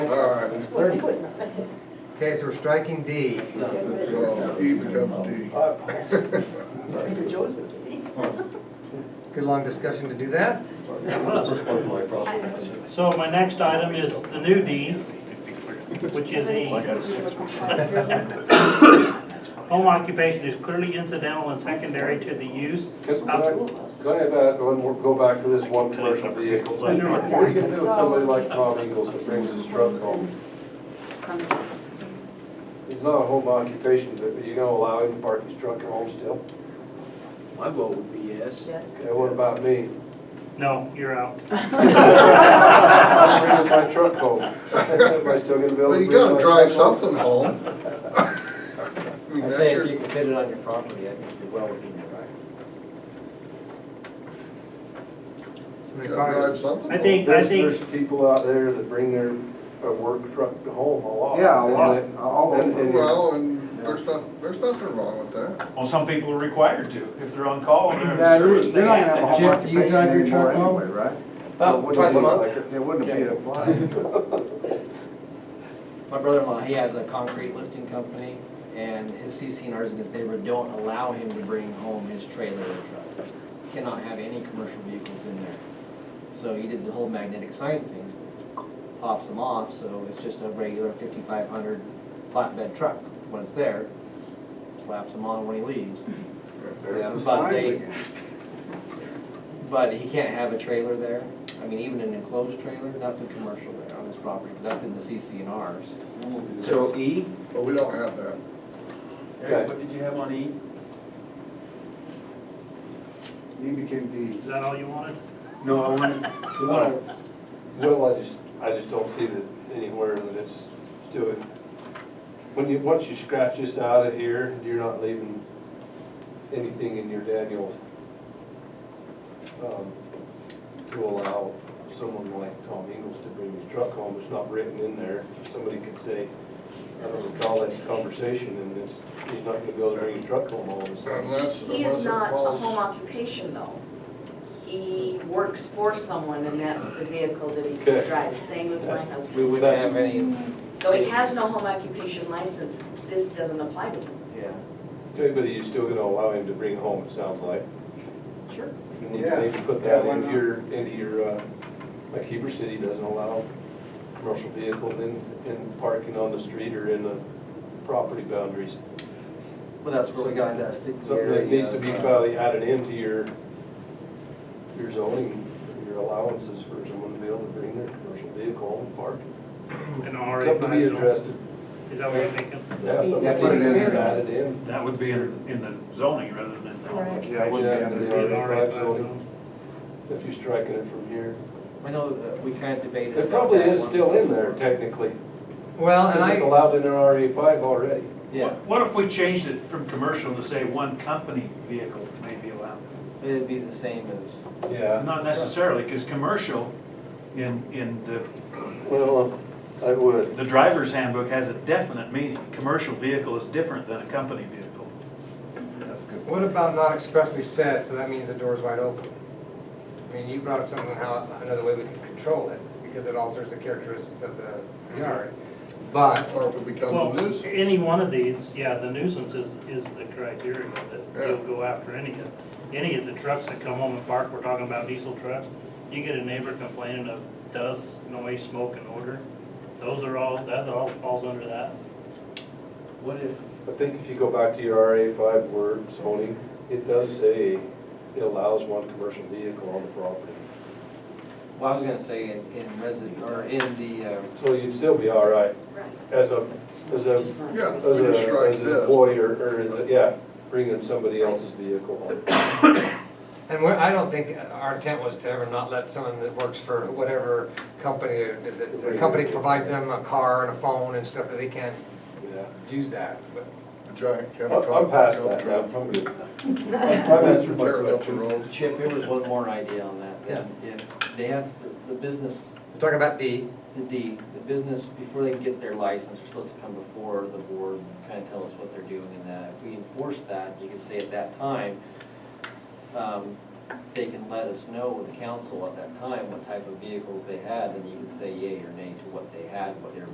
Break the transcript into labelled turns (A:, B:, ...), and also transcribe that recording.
A: Okay, so we're striking D.
B: So E becomes D.
A: Good long discussion to do that.
C: So my next item is the new D, which is E. Home occupation is clearly incidental and secondary to the use.
D: Could I could I have that one, more- uh, go back to this one commercial vehicle? What are you gonna do with somebody like Tom Ingles that brings his truck home? He's not a home occupation, but are you gonna allow him to park his truck at home still?
E: My vote would be yes.
D: Okay, what about me?
C: No, you're out.
D: I'm bringing my truck home. Am I still gonna be able to?
B: Well, you
D: bring
B: gotta
D: my
B: drive
D: truck home?
B: something home. I mean,
E: I
B: that's
E: say
B: your,
E: if you can fit it on your property, I think you're well within your right.
A: I
B: you
A: mean,
B: gotta drive
A: far-
B: something
C: I
B: home.
C: think-
D: There's, there's people out there that bring their, uh work truck to home a lot.
F: Yeah, a lot,
D: And
F: all
D: and-
F: over.
D: and-
B: Well, and there's not, there's nothing wrong with that.
G: Well, some people are required to, if they're on call and
F: Yeah,
G: they're in
F: you're
G: service, they
F: you're not gonna have
G: have
F: a
G: to.
F: home
A: Jeff, do you
F: occupation
A: drive your
F: anymore
A: truck home?
F: anyway, right?
A: About
F: So it wouldn't
A: twice a
F: look
A: month.
F: like it- It wouldn't be applied.
E: My brother-in-law, he has a concrete lifting company, and his CCNRs in his neighborhood don't allow him to bring home his trailer or truck. Cannot have any commercial vehicles in there. So he did the whole magnetic sign thing, pops them off, so it's just a regular fifty-five hundred flatbed truck when it's there. Slaps them on when he leaves.
F: There's the
E: But
F: signs
E: they-
F: again.
E: But he can't have a trailer there, I mean, even an enclosed trailer, nothing commercial there on his property, but that's in the CCNRs.
H: So E,
B: But we don't have that.
D: Okay.
H: Eric, what did you have on E?
F: E became
C: Is that all you wanted?
H: No, I wanted,
D: Well, I just, I just don't see that anywhere that it's doing, when you, once you scratch this out of here, you're not leaving anything in your Daniel um, to allow someone like Tom Ingles to bring his truck home, it's not written in there. Somebody could say, I don't recall that conversation, and it's, he's not gonna go bring his truck home all of a sudden.
B: Unless,
I: He
B: unless
I: is
B: it
I: not a home
B: falls.
I: occupation, though. He works for someone, and that's the vehicle that he
D: Okay.
I: drives, same as my
E: We
I: husband.
E: wouldn't have any,
I: So he has no home occupation license, this doesn't apply to him.
E: yeah.
D: Okay, but you're still gonna allow him to bring home, it sounds like.
I: Sure.
D: And you
F: Yeah.
D: maybe put
F: Yeah,
D: that
F: why
D: into
F: not?
D: your, into your, uh, like Heber City doesn't allow commercial vehicles in, in parking on the street or in the property boundaries.
E: Well, that's where we got that stick.
D: Something that needs to
E: uh,
D: be probably added into your, your zoning, your allowances for someone to be able to bring their commercial vehicle and park.
C: An RA
D: Something to be addressed,
C: Is that what you're thinking?
D: yeah, something
F: Yeah, put it
D: needs to be
F: in there.
D: added in.
G: That would be in, in the zoning rather than the
F: E. Yeah, it
G: occupation.
F: wouldn't be
D: Yeah,
F: under
D: the
F: the-
C: An RA
D: R5
C: five
D: zoning, if you're striking it from here.
E: I know that we kind of
D: It
E: debated. about
D: probably
E: that
D: is
E: once
D: still in there
E: before.
D: technically,
A: Well, and
D: because
A: I.
D: it's allowed in an RA five already.
E: Yeah,
G: What if we changed it from commercial to say one company vehicle may be allowed?
E: it'd be the same as,
D: Yeah.
G: Not necessarily, because commercial in, in the,
D: Well, I would.
G: the driver's handbook has a definite meaning. Commercial vehicle is different than a company vehicle.
F: That's good.
A: What about not expressly said, so that means the door's wide open? I mean, you brought up something on how, another way we can control it, because it alters the characteristics of the yard. But,
B: Or if it becomes a
C: Well,
B: nuisance.
C: any one of these, yeah, the nuisance is, is the criteria that you'll go after any of, any of the trucks that come home and park, we're talking about diesel trucks. You get a neighbor complaining of dust, noise, smoke and odor, those are all, that all falls under that.
E: what if,
D: I think if you go back to your RA five word zoning, it does say it allows one commercial vehicle on the property.
E: well, I was gonna say in, in resident, or in the, uh,
D: So you'd still be all right
I: Right.
D: as a, as a,
I: Just not-
B: Yeah,
D: as
B: we just
D: a,
B: strike
D: as an
B: this.
D: employee or, or as a, yeah, bringing somebody else's vehicle home.
A: and we're, I don't think, our intent was to ever not let someone that works for whatever company, the, the- the company provides them a car and a phone and stuff that they can't
D: Yeah.
A: use that, but.
B: A giant
D: I'm
B: chemical.
D: I'm past that now,
B: chemical
D: I'm good. I've answered my
B: Tearing up the
D: question.
B: roads.
E: Chip, here was one more idea on that.
A: Yeah.
E: If they have the- the business
A: We're talking about D,
E: the, the, the business, before they get their license, they're supposed to come before the board, and kind of tell us what they're doing and that. If we enforce that, you could say at that time, um, they can let us know, the council at that time, what type of vehicles they had, and you could say yea or nay to what they had, what they were